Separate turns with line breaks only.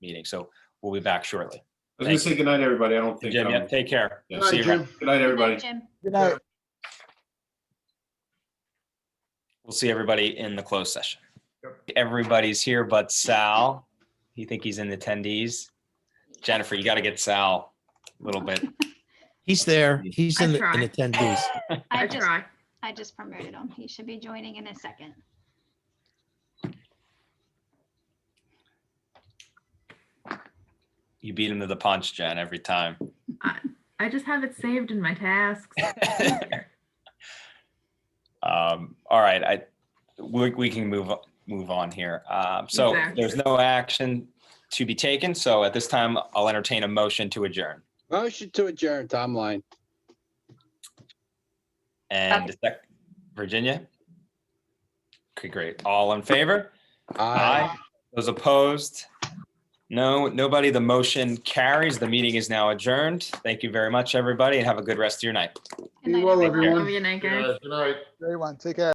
meeting. So we'll be back shortly.
I was gonna say goodnight, everybody. I don't think.
Jim, yeah,
um,
take care.
yeah.
See you around.
Goodnight, everybody.
Jim.
Good night.
We'll see everybody in the closed session. Everybody's here but Sal. You think he's in attendees? Jennifer, you got to get Sal a little bit.
He's there. He's in,
I
the- in
tried.
attendees.
I
I
just,
try.
I just promoted him. He should be joining in a second.
You beat him to the punch, Jen, every time.
I just have it saved in my tasks.
Um, all right, I, we, we can move, move on here. Um, so
Exactly.
there's no action to be taken. So at this time, I'll entertain a motion to adjourn.
Motion to adjourn, Tom Line.
And the sec- Virginia? Okay, great. All in favor?
Aye.
Those opposed? No, nobody. The motion carries. The meeting is now adjourned. Thank you very much, everybody, and have a good rest of your night.
Good
Be
night,
well,
everyone.
everyone.
Love you, Nick.
Good night.
Everyone, take care.